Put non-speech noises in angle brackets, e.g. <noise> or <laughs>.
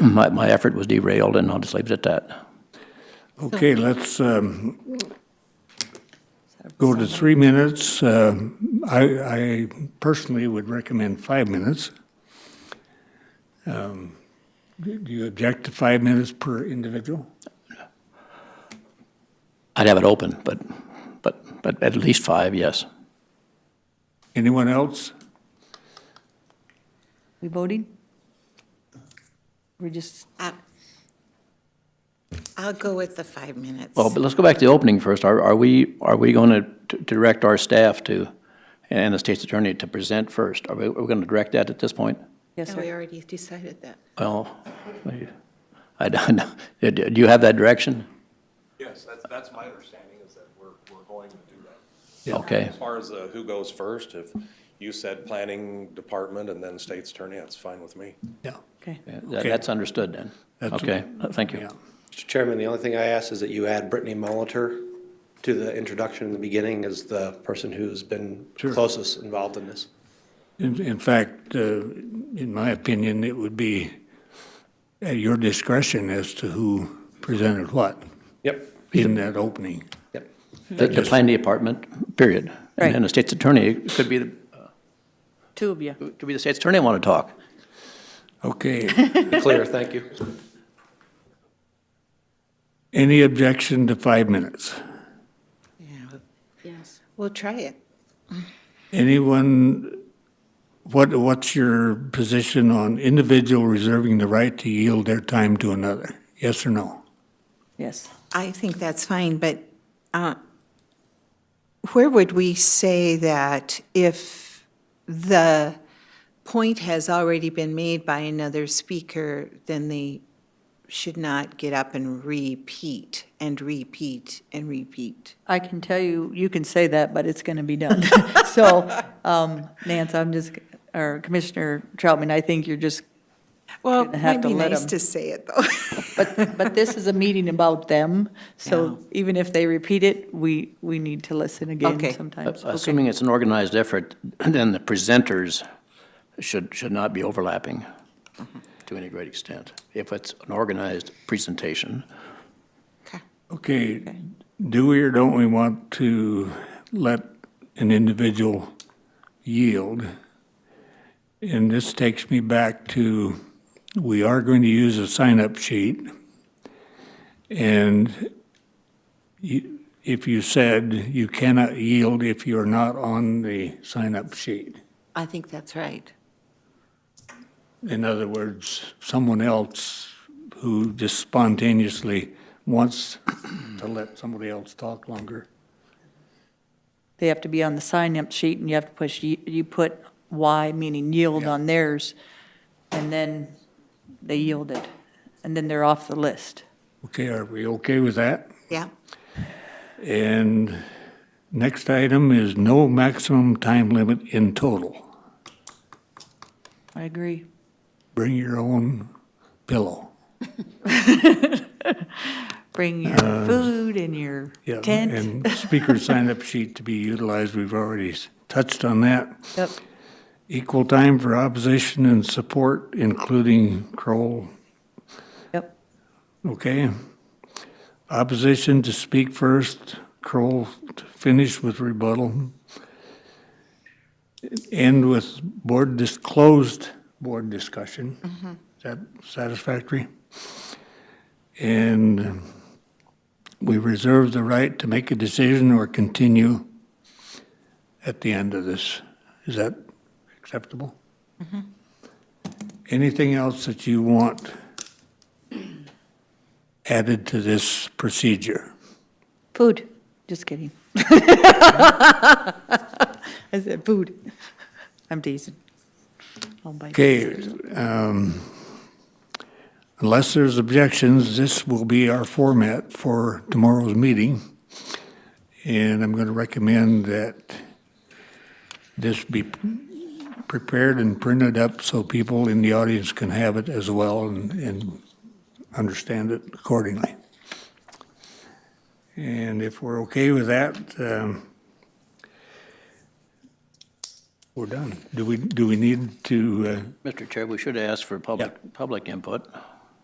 my, my effort was derailed, and I'll just leave it at that. Okay, let's um, go to three minutes. Uh, I I personally would recommend five minutes. Um, Do do you object to five minutes per individual? I'd have it open, but, but, but at least five, yes. Anyone else? We voting? We're just, Uh, I'll go with the five minutes. Well, but let's go back to the opening first. Are, are we, are we going to direct our staff to, and the state's attorney to present first? Are we, are we going to direct that at this point? yes, No, sir. we already decided that. Well, I- I don't know. Do- Do you have that direction? Yes, that's, that's my understanding, is that we're, we're going to do that. Okay, As far as uh, who goes first, if you said planning department and then state's attorney, that's fine with me. Yeah. Okay. That- that's understood then. That's- Okay, thank you. Yeah. Mr. Chairman, the only thing I ask is that you add Brittany Molitor to the introduction in the beginning as the person who's been Sure. closest involved in this. In in fact, uh, in my opinion, it would be at your discretion as to who presented what Yep, in that opening. yep. The the planning department, period. And then the state's attorney could be, the Two of you. could be the state's attorney want to talk. Okay. Clear, thank you. Any objection to five minutes? Yeah. Yes. We'll try it. Anyone, what, what's your position on individual reserving the right to yield their time to another? Yes or no? Yes. I think that's fine, but uh, where would we say that if the point has already been made by another speaker, then they should not get up and repeat and repeat and repeat? I can tell you, you can say that, but it's going to be done. <laughs> So, um, Nance, I'm just, or Commissioner Troutman, I think you're just, <laughs> Well, Shouldn't have it'd to be let nice 'em. to say it, though. <laughs> but, but this is a meeting about them. So even if they repeat it, we, we need to listen again Okay. sometimes. Assuming it's an organized effort, <clears throat> then the presenters should, should not be overlapping to any great extent, if it's an organized presentation. Okay. Okay, do we or don't we want to let an individual yield? And this takes me back to, we are going to use a sign-up sheet. And you- if you said you cannot yield if you're not on the sign-up sheet. I think that's right. In other words, someone else who just spontaneously wants to let somebody else talk longer. They have to be on the sign-up sheet and you have to push, y- you put Y, meaning yield on theirs. And then they yielded. And then they're off the list. Okay, are we okay with that? Yeah. And next item is no maximum time limit in total. I agree. Bring your own pillow. Bring your food and your Uh, Yeah, tent. And speaker sign-up sheet to be utilized, we've already s- touched on that. <laughs> Yep. Equal time for opposition and support, including Kroll, Yep. Okay. Opposition to speak first, Kroll to finish with rebuttal. End with board dis, closed board discussion. Is that satisfactory? And we reserve the right to make a decision or continue at the end of this. Is that acceptable? Anything else that you want? added to this procedure. Food. Just kidding. <laughs> I said food. I'm teasing. I'll bite. Okay, um, unless there's objections, this will be our format for tomorrow's meeting. And I'm going to recommend that this be prepared and printed up so people in the audience can have it as well and, and understand it accordingly. And if we're okay with that, um, we're done. Do we, uh, do we need to, uh, Mr. Chair, we should ask for public, public input.